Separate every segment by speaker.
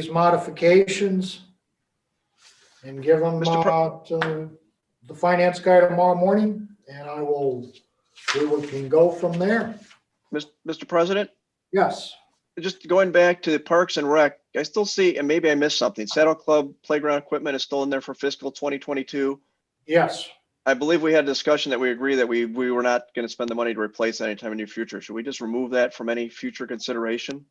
Speaker 1: these modifications and give them
Speaker 2: Mr. Pro-
Speaker 1: uh, to the finance guy tomorrow morning, and I will, we will- can go from there.
Speaker 2: Mis- Mr. President,
Speaker 1: Yes,
Speaker 2: just going back to the Parks and Rec, I still see, and maybe I missed something, Saddle Club playground equipment is still in there for fiscal 2022.
Speaker 1: yes.
Speaker 2: I believe we had a discussion that we agree that we, we were not going to spend the money to replace anytime in the near future. Should we just remove that from any future consideration?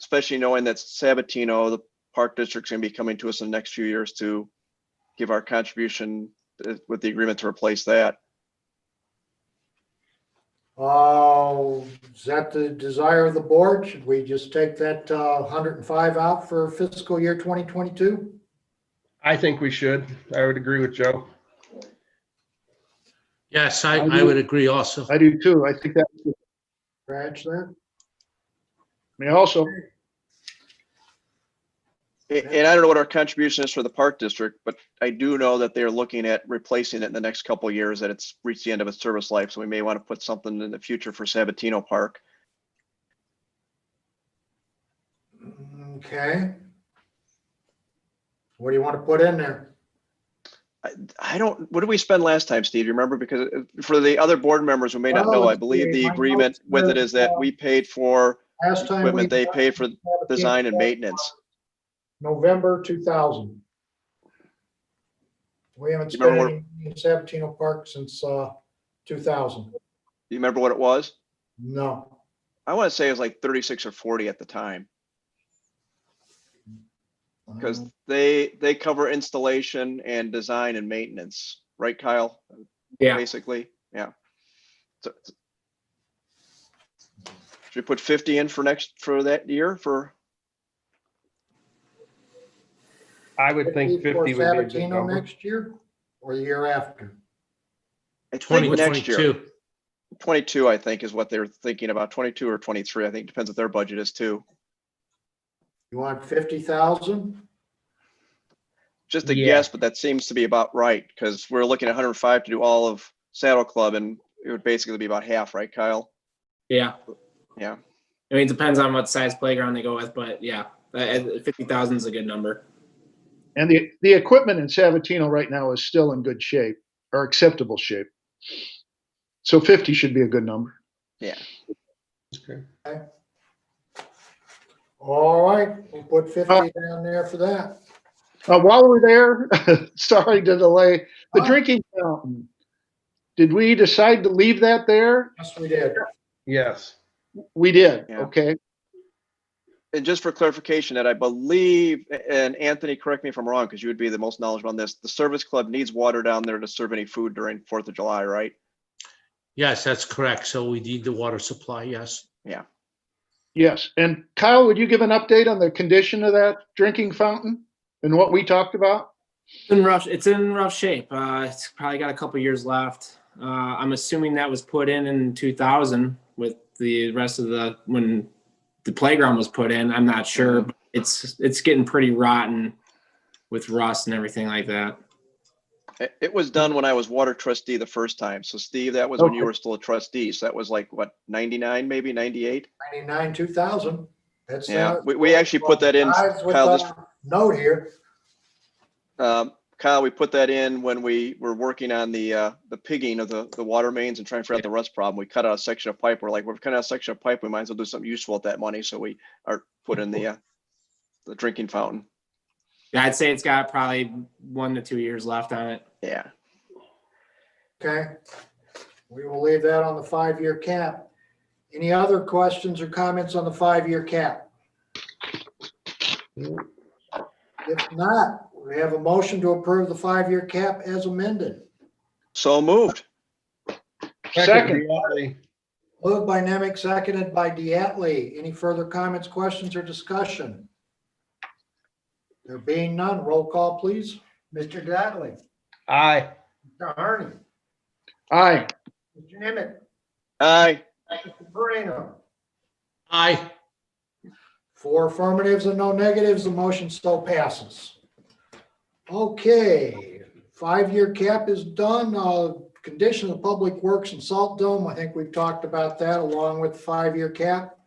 Speaker 2: Especially knowing that Sabatino, the park district's going to be coming to us in the next few years to give our contribution uh, with the agreement to replace that.
Speaker 1: Uh, Is that the desire of the board? Should we just take that uh, 105 out for fiscal year 2022?
Speaker 3: I think we should. I would agree with Joe.
Speaker 4: Yes, I,
Speaker 5: I
Speaker 4: I would
Speaker 5: do.
Speaker 4: agree also.
Speaker 5: I do too. I think that, I
Speaker 1: Scratch that?
Speaker 5: mean, also,
Speaker 2: A- And I don't know what our contribution is for the park district, but I do know that they're looking at replacing it in the next couple of years, that it's reached the end of its service life, so we may want to put something in the future for Sabatino Park.
Speaker 1: Okay. What do you want to put in there?
Speaker 2: I don't, what did we spend last time, Steve? You remember? Because uh, for the other board members who may not know, I believe the agreement with it is that we paid for
Speaker 1: Last time. we-
Speaker 2: equipment, they paid for design and maintenance.
Speaker 1: November two thousand. We haven't
Speaker 2: You
Speaker 1: spent
Speaker 2: remember
Speaker 1: any in Sabatino Park since uh two thousand.
Speaker 2: Do you remember what it was?
Speaker 1: No,
Speaker 2: I want to say it was like thirty-six or forty at the time. Because
Speaker 1: Um,
Speaker 2: they, they cover installation and design and maintenance, right, Kyle?
Speaker 6: Yeah.
Speaker 2: Basically, yeah. So- Should we put fifty in for next, for that year, for,
Speaker 3: I would think
Speaker 1: for
Speaker 3: fifty would be a good
Speaker 1: Sabatino
Speaker 3: number.
Speaker 1: Next year or the year after?
Speaker 2: I think next year,
Speaker 4: 2022.
Speaker 2: twenty-two, I think, is what they're thinking about, twenty-two or twenty-three, I think, depends what their budget is too.
Speaker 1: You want fifty thousand?
Speaker 2: Just a
Speaker 3: Yeah.
Speaker 2: guess, but that seems to be about right, because we're looking at hundred and five to do all of Saddle Club, and it would basically be about half, right, Kyle?
Speaker 6: Yeah.
Speaker 2: Yeah.
Speaker 6: I mean, it depends on what size playground they go with, but yeah, fifty thousand is a good number.
Speaker 5: and the, the equipment in Sabatino right now is still in good shape or acceptable shape. So 50 should be a good number.
Speaker 3: Okay.
Speaker 1: All right, we'll put fifty down there for that.
Speaker 5: Uh, while we're there, sorry to delay, the
Speaker 1: Oh.
Speaker 5: drinking fountain. Did we decide to leave that there?
Speaker 1: Yes, we did.
Speaker 3: Yes.
Speaker 5: We did,
Speaker 2: Yeah.
Speaker 5: okay.
Speaker 2: And just for clarification, that I believe, and Anthony, correct me if I'm wrong, because you would be the most knowledgeable on this, the service club needs water down there to serve any food during Fourth of July, right?
Speaker 4: Yes, that's correct. So we need the water supply, yes.
Speaker 5: Yes. And Kyle, would you give an update on the condition of that drinking fountain and what we talked about?
Speaker 6: In rough, it's in rough shape. Uh, it's probably got a couple years left. Uh, I'm assuming that was put in in two thousand with the rest of the when the playground was put in. I'm not sure. but It's it's getting pretty rotten with rust and everything like that.
Speaker 2: It, it was done when I was water trustee the first time. So Steve, that was when you
Speaker 5: Okay.
Speaker 2: were still a trustee. So that was like, what, ninety-nine, maybe ninety-eight?
Speaker 1: Ninety-nine, two thousand. That's.
Speaker 2: Yeah,
Speaker 1: uh,
Speaker 2: we, we actually put that in,
Speaker 1: Guys with
Speaker 2: Kyle, just,
Speaker 1: the Note here.
Speaker 2: um, Kyle, we put that in when we were working on the, uh, the pigging of the, the water mains and trying to figure out the rust problem. We cut out a section of pipe. We're like, we've cut out a section of pipe. We might as well do something useful with that money. So we are put in the, uh, the drinking fountain.
Speaker 6: Yeah, I'd say it's got probably one to two years left on it.
Speaker 2: Yeah.
Speaker 1: Okay. We will leave that on the five-year cap. Any other questions or comments on the five-year cap? If not, we have a motion to approve the five-year cap as amended.
Speaker 2: So moved.
Speaker 5: Second.
Speaker 3: Second.
Speaker 1: Moved by Nemec, seconded by Diatley. Any further comments, questions, or discussion? There being none, roll call, please. Mr. Diatley.
Speaker 3: Aye.
Speaker 1: Mr. Harney.
Speaker 5: Aye.
Speaker 1: Mr. Nemec.
Speaker 2: Aye.
Speaker 1: Mr. Moreno.
Speaker 4: Aye,
Speaker 1: Four affirmatives and no negatives, the motion still passes. Okay, five-year cap is done. Uh, Condition of Public Works and Salt Dome, I think we've talked about that along with the five-year cap.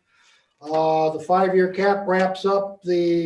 Speaker 1: Uh, Uh, the five-year cap wraps up the